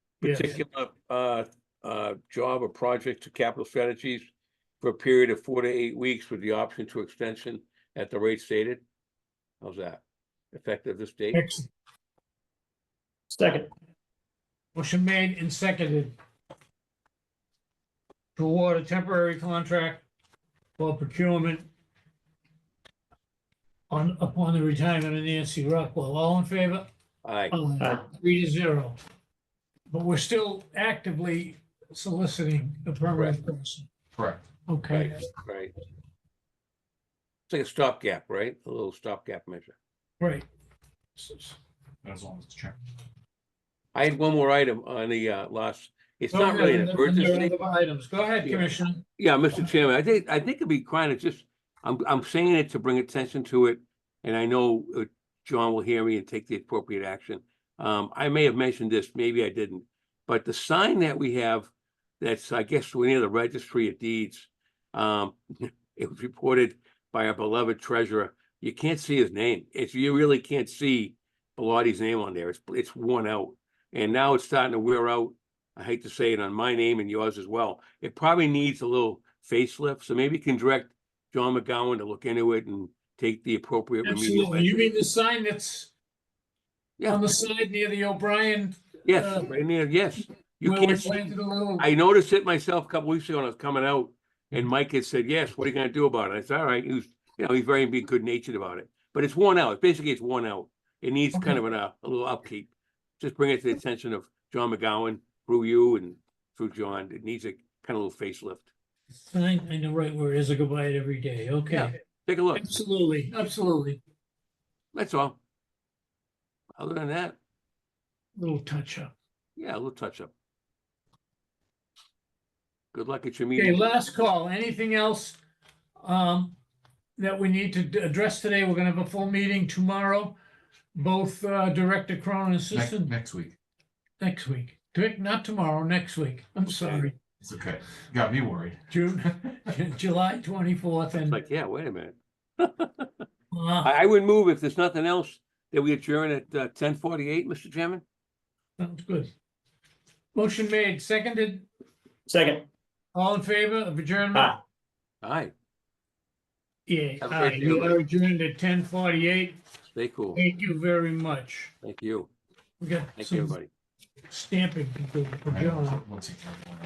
Yes. particular uh, uh, job or project to capital strategies for a period of four to eight weeks with the option to extension at the rate stated. How's that? Effective this date? Excellent. Second, Motion made and seconded to award a temporary contract for procurement on, upon the retirement of Nancy Rockwell. All in favor? Aye, Aye. Aye. Three to zero. But we're still actively soliciting a permanent person. Correct. Okay, right. It's like a stopgap, right? A little stopgap measure. great. As long as it's checked. I had one more item on the uh, last, it's Go not really ahead, an and then there are emergency. other Items. Go ahead, Yeah. Commissioner. Yeah, Mr. Chairman, I think, I think it'd be kind of just, I'm, I'm saying it to bring attention to it. And I know uh, John will hear me and take the appropriate action. Um, I may have mentioned this, maybe I didn't. But the sign that we have, that's, I guess, we're near the registry of deeds. Um, it was reported by our beloved treasurer. You can't see his name. It's, you really can't see Bellatti's name on there. It's, it's worn out. And now it's starting to wear out. I hate to say it on my name and yours as well. It probably needs a little facelift, so maybe you can direct John McGowan to look into it and take the appropriate remedial. Absolutely. You measures. mean the sign that's Yeah. on the side near the O'Brien? Yes, uh, right near- yes. You where we can't, see- planted a little? I noticed it myself a couple weeks ago when I was coming out and Mike had said, yes, what are you gonna do about it? I said, all right, he was, you know, he's very being good natured about it. But it's worn out. Basically, it's worn out. It needs kind of an, uh, a little upkeep. Just bring it to the attention of John McGowan through you and through John. It needs a kind of little facelift. Sign, I know right where it is. I go by it every day. Yeah. Okay, Take a look. absolutely, absolutely. That's all. Other than that, Little touch up. yeah, a little touch up. Good luck at your Okay, meeting. last call. Anything else um, that we need to d- address today? We're gonna have a full meeting tomorrow. Both uh, Director Cronin and Next, Assistant next week. next week. Direct- Not tomorrow, next week. I'm sorry. It's okay. Got me worried. June, July twenty-fourth and Like, yeah, wait a minute. uh, I, I would move if there's nothing else that we adjourn at uh, ten forty-eight, Mr. Chairman. sounds good. Motion made, seconded. second. All in favor of adjournment? Aye. Aye, Yeah, Have a aye. great day. We are adjourned at ten forty-eight. stay cool. Thank you very much. Thank you. We got Thank you, some everybody. stamping to do for Right, John. We'll take care of it.